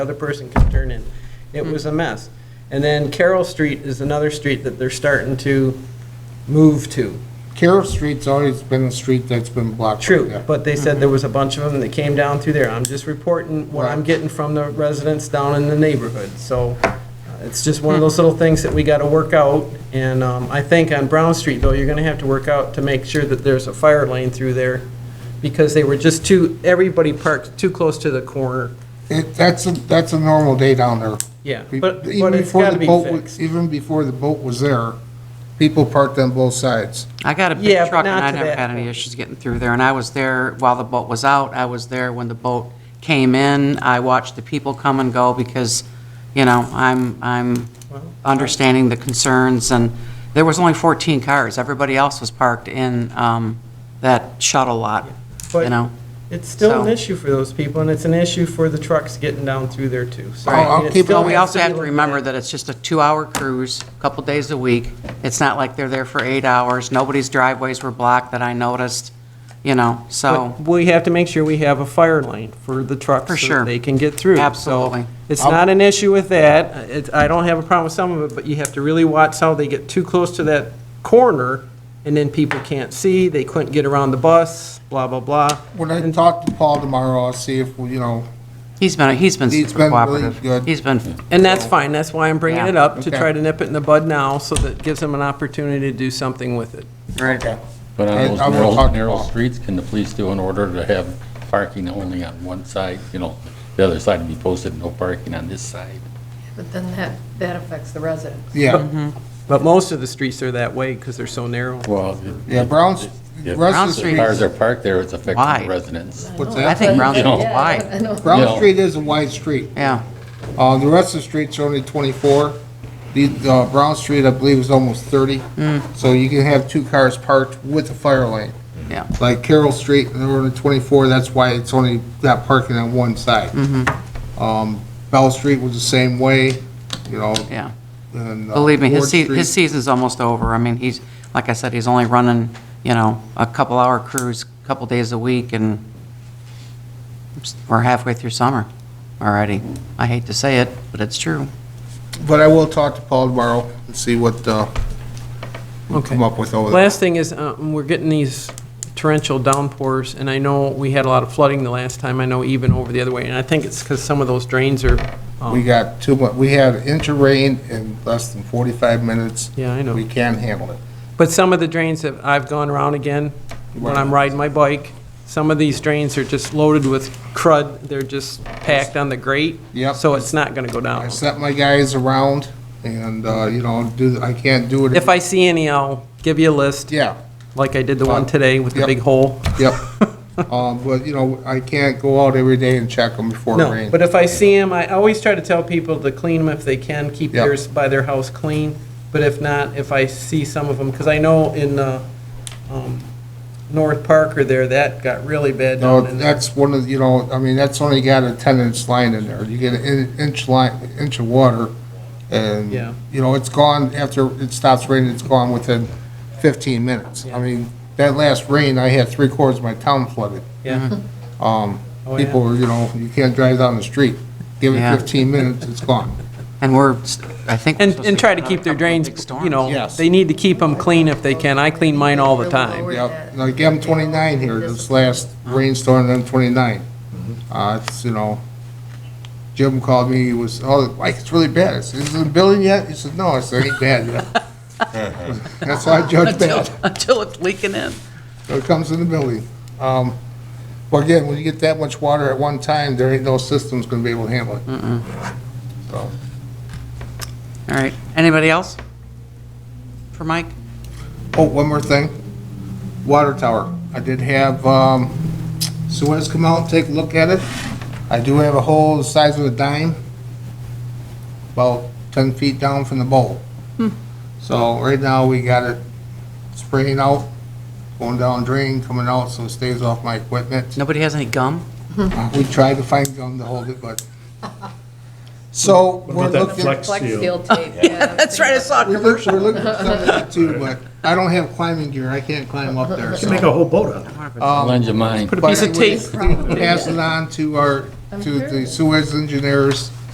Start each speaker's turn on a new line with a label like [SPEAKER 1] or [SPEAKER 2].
[SPEAKER 1] other person could turn in. It
[SPEAKER 2] Hmm.
[SPEAKER 1] was a mess. And then Carroll Street is another street that they're starting to move to.
[SPEAKER 2] Carroll Street's always been a street that's been blocked.
[SPEAKER 1] True, but they said there was a bunch of them that came down through there. I'm just reporting what I'm
[SPEAKER 2] Mm-hmm. Right.
[SPEAKER 1] getting from the residents down in the neighborhood. So uh, it's just
[SPEAKER 2] Hmm.
[SPEAKER 1] one of those little things that we got to work out. And um, I think on Brown Street, though, you're going to have to work out to make sure that there's a fire lane through there because they were just too, everybody parked too close to the corner.
[SPEAKER 2] It, that's, a- that's a normal day down there.
[SPEAKER 1] Yeah,
[SPEAKER 2] Be-
[SPEAKER 1] but,
[SPEAKER 2] even
[SPEAKER 1] but it's
[SPEAKER 2] before
[SPEAKER 1] got
[SPEAKER 2] the
[SPEAKER 1] to be
[SPEAKER 2] boat wa-
[SPEAKER 1] fixed.
[SPEAKER 2] Even before the boat was there, people parked on both sides.
[SPEAKER 3] I got a big
[SPEAKER 1] Yeah, but
[SPEAKER 3] truck, and
[SPEAKER 1] not
[SPEAKER 3] I
[SPEAKER 1] to
[SPEAKER 3] never
[SPEAKER 1] that
[SPEAKER 3] had any
[SPEAKER 1] point.
[SPEAKER 3] issues getting through there, and I was there while the boat was out, I was there when the boat came in, I watched the people come and go, because, you know, I'm, I'm understanding the concerns, and there was only 14 cars, everybody else was parked in um, that shuttle lot,
[SPEAKER 1] But-
[SPEAKER 3] you know?
[SPEAKER 1] It's still an
[SPEAKER 3] So-
[SPEAKER 1] issue for those people, and it's an issue for the trucks getting down through there too. So, I
[SPEAKER 2] I'll- I'll
[SPEAKER 1] mean, it
[SPEAKER 2] keep-
[SPEAKER 1] still
[SPEAKER 3] Well, we
[SPEAKER 1] has
[SPEAKER 3] also
[SPEAKER 1] be
[SPEAKER 3] have to
[SPEAKER 1] looked at.
[SPEAKER 3] remember that it's just a two-hour cruise, a couple days a week. It's not like they're there for eight hours, nobody's driveways were blocked that I noticed, you know, so.
[SPEAKER 1] But we have to make sure we have a fire lane for the trucks.
[SPEAKER 3] For
[SPEAKER 1] so that
[SPEAKER 3] sure.
[SPEAKER 1] They can get through. So
[SPEAKER 3] Absolutely.
[SPEAKER 1] It's not an issue with that. It's, I don't have a problem with some of it, but you have to really watch how they get too close to that corner, and then people can't see, they couldn't get around the bus, blah, blah, blah.
[SPEAKER 2] When I talk to Paul tomorrow, I'll see if, you know,
[SPEAKER 3] He's been, he's been
[SPEAKER 2] He's
[SPEAKER 3] super
[SPEAKER 2] been really
[SPEAKER 3] cooperative.
[SPEAKER 2] good.
[SPEAKER 3] He's been,
[SPEAKER 1] And that's fine, that's why I'm bringing it
[SPEAKER 3] Yeah.
[SPEAKER 1] up, to
[SPEAKER 2] Okay.
[SPEAKER 1] try to nip it in the bud now, so that gives them an opportunity to do something with it.
[SPEAKER 2] okay.
[SPEAKER 4] But
[SPEAKER 2] I-
[SPEAKER 4] on those
[SPEAKER 2] I will talk to
[SPEAKER 4] narrow, narrow
[SPEAKER 2] Paul.
[SPEAKER 4] streets, can the police do an order to have parking only on one side? You know, the other side be posted, no parking on this side.
[SPEAKER 5] But then that, that affects the residents.
[SPEAKER 2] Yeah,
[SPEAKER 1] But most of the streets are that way, because they're so narrow.
[SPEAKER 4] Well.
[SPEAKER 2] yeah, Brown's, the rest
[SPEAKER 3] Brown
[SPEAKER 2] of the
[SPEAKER 3] Street-
[SPEAKER 2] streets,
[SPEAKER 4] Cars are parked there, it's affecting
[SPEAKER 3] Why?
[SPEAKER 4] the residents.
[SPEAKER 5] Oh,
[SPEAKER 2] what's
[SPEAKER 3] I
[SPEAKER 2] that?
[SPEAKER 3] think Brown
[SPEAKER 5] Yeah,
[SPEAKER 3] Street's
[SPEAKER 5] I
[SPEAKER 3] wide,
[SPEAKER 5] know.
[SPEAKER 2] Brown
[SPEAKER 4] Yeah.
[SPEAKER 2] Street is a wide street.
[SPEAKER 3] yeah.
[SPEAKER 2] Uh, the rest of the streets are only twenty-four. The, uh, Brown Street, I believe, is almost thirty.
[SPEAKER 3] Mm.
[SPEAKER 2] So you can have two cars parked with a fire lane.
[SPEAKER 3] Yeah.
[SPEAKER 2] Like Carroll Street, and they're only twenty-four, that's why it's only got parking on one side.
[SPEAKER 3] Mm-hmm.
[SPEAKER 2] Um, Bell Street was the same way, you know.
[SPEAKER 3] Yeah.
[SPEAKER 2] and, uh,
[SPEAKER 3] Believe me, his,
[SPEAKER 2] Ward
[SPEAKER 3] sea-
[SPEAKER 2] Street-
[SPEAKER 3] his season's almost over. I mean, he's, like I said, he's only running, you know, a couple hour cruise, a couple days a week, and we're halfway through summer already. I hate to say it, but it's true.
[SPEAKER 2] But I will talk to Paul tomorrow and see what, uh, we
[SPEAKER 1] Okay.
[SPEAKER 2] come up with over there.
[SPEAKER 1] Last thing is, uh, we're getting these torrential downpours, and I know we had a lot of flooding the last time, I know even over the other way, and I think it's because some of those drains are, um,
[SPEAKER 2] We got too much, we had interrain in less than forty-five minutes.
[SPEAKER 1] Yeah, I know.
[SPEAKER 2] We can't handle it.
[SPEAKER 1] but some of the drains that I've gone around again, when I'm riding my bike, some of these drains are just loaded with crud, they're just packed on the grate.
[SPEAKER 2] Yep.
[SPEAKER 1] So it's not going to go
[SPEAKER 2] I
[SPEAKER 1] down.
[SPEAKER 2] sent my guys around and, uh, you know, do, I can't do it.
[SPEAKER 1] If I see any, I'll give you a list,
[SPEAKER 2] Yeah, Uh,
[SPEAKER 1] like I did the one today with the
[SPEAKER 2] Yep.
[SPEAKER 1] big hole.
[SPEAKER 2] yep. Um, but, you know, I can't go out every day and check them before it
[SPEAKER 1] No,
[SPEAKER 2] rains.
[SPEAKER 1] but if I see them, I always try to tell people to clean them if they can, keep
[SPEAKER 2] Yep.
[SPEAKER 1] theirs by their house clean. But if not, if I see some of them, because I know in uh, um, North Park or there, that got really bad
[SPEAKER 2] No,
[SPEAKER 1] down in there.
[SPEAKER 2] that's one of, you know, I mean, that's only got a ten-inch line in there. You get an in- inch line, inch of water, and,
[SPEAKER 1] Yeah.
[SPEAKER 2] you know, it's gone after it stops raining, it's gone within fifteen minutes.
[SPEAKER 1] Yeah.
[SPEAKER 2] I mean, that last rain, I had three-quarters of my town flooded.
[SPEAKER 1] Yeah,
[SPEAKER 2] Um,
[SPEAKER 1] Oh, yeah.
[SPEAKER 2] people, were, you know, you can't drive down the street. Give it
[SPEAKER 3] Yeah.
[SPEAKER 2] fifteen minutes, it's gone.
[SPEAKER 3] And we're, s- I think. we're
[SPEAKER 1] And,
[SPEAKER 3] supposed
[SPEAKER 1] and try to
[SPEAKER 3] get
[SPEAKER 1] keep their
[SPEAKER 3] another couple of
[SPEAKER 1] drains,
[SPEAKER 3] big storms.
[SPEAKER 1] you know,
[SPEAKER 2] Yes.
[SPEAKER 1] they need to keep them clean if they can. I clean mine all the time.
[SPEAKER 2] Yep, like M twenty-nine here, this last rainstorm, M twenty-nine. Uh, it's, you know, Jim called me, he was, oh, Mike, it's really bad. I said, Is it building yet? He said, no, I said, ain't bad yet. That's why I judge bad,
[SPEAKER 3] Until it's leaking in.
[SPEAKER 2] So it comes in the building. Um, but again, when you get that much water at one time, there ain't no system's gonna be able to handle it. So,
[SPEAKER 3] All right, anybody else? For Mike?
[SPEAKER 2] oh, one more thing, water tower. I did have, um, Suez come out and take a look at it. I do have a hole the size of a dime, about 10 feet down from the bowl. So right now, we got it spraying out, going down drain, coming out, so it stays off my equipment.
[SPEAKER 3] Nobody has any gum?
[SPEAKER 2] Uh, We tried to find gum to hold it, but, so we're
[SPEAKER 6] What about that
[SPEAKER 2] looking.
[SPEAKER 6] flex
[SPEAKER 5] Flex
[SPEAKER 6] seal?
[SPEAKER 5] steel tape, yeah.
[SPEAKER 3] That's right, I saw a
[SPEAKER 2] We're
[SPEAKER 3] commercial.
[SPEAKER 2] look- we're looking for something too, but I don't have climbing gear, I can't climb up there,
[SPEAKER 6] Make
[SPEAKER 2] so.
[SPEAKER 6] a whole boat out of it.
[SPEAKER 4] Lend your mind.
[SPEAKER 1] Put a piece of
[SPEAKER 2] But
[SPEAKER 1] tape,
[SPEAKER 2] anyways, Pass it on to our
[SPEAKER 5] I'm
[SPEAKER 2] to the
[SPEAKER 5] curious.
[SPEAKER 2] Suez engineers